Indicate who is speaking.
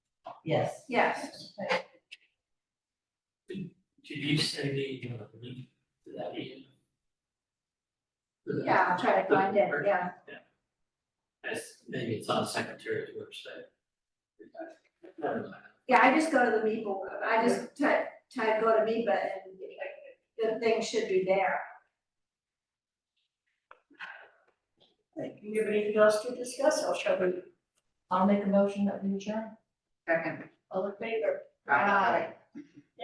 Speaker 1: Yes.
Speaker 2: Yes.
Speaker 3: Could you send me the link to that meeting?
Speaker 2: Yeah, I'll try to find it, yeah.
Speaker 3: That's- maybe it's on secretary's website. Never mind.
Speaker 2: Yeah, I just go to the Meeple, I just type, type go to Meepa and the thing should be there.
Speaker 4: Like, you have anything else to discuss, or shall we,
Speaker 1: I'll make a motion that we adjourn.
Speaker 2: Second.
Speaker 4: all in favor?
Speaker 2: Aye.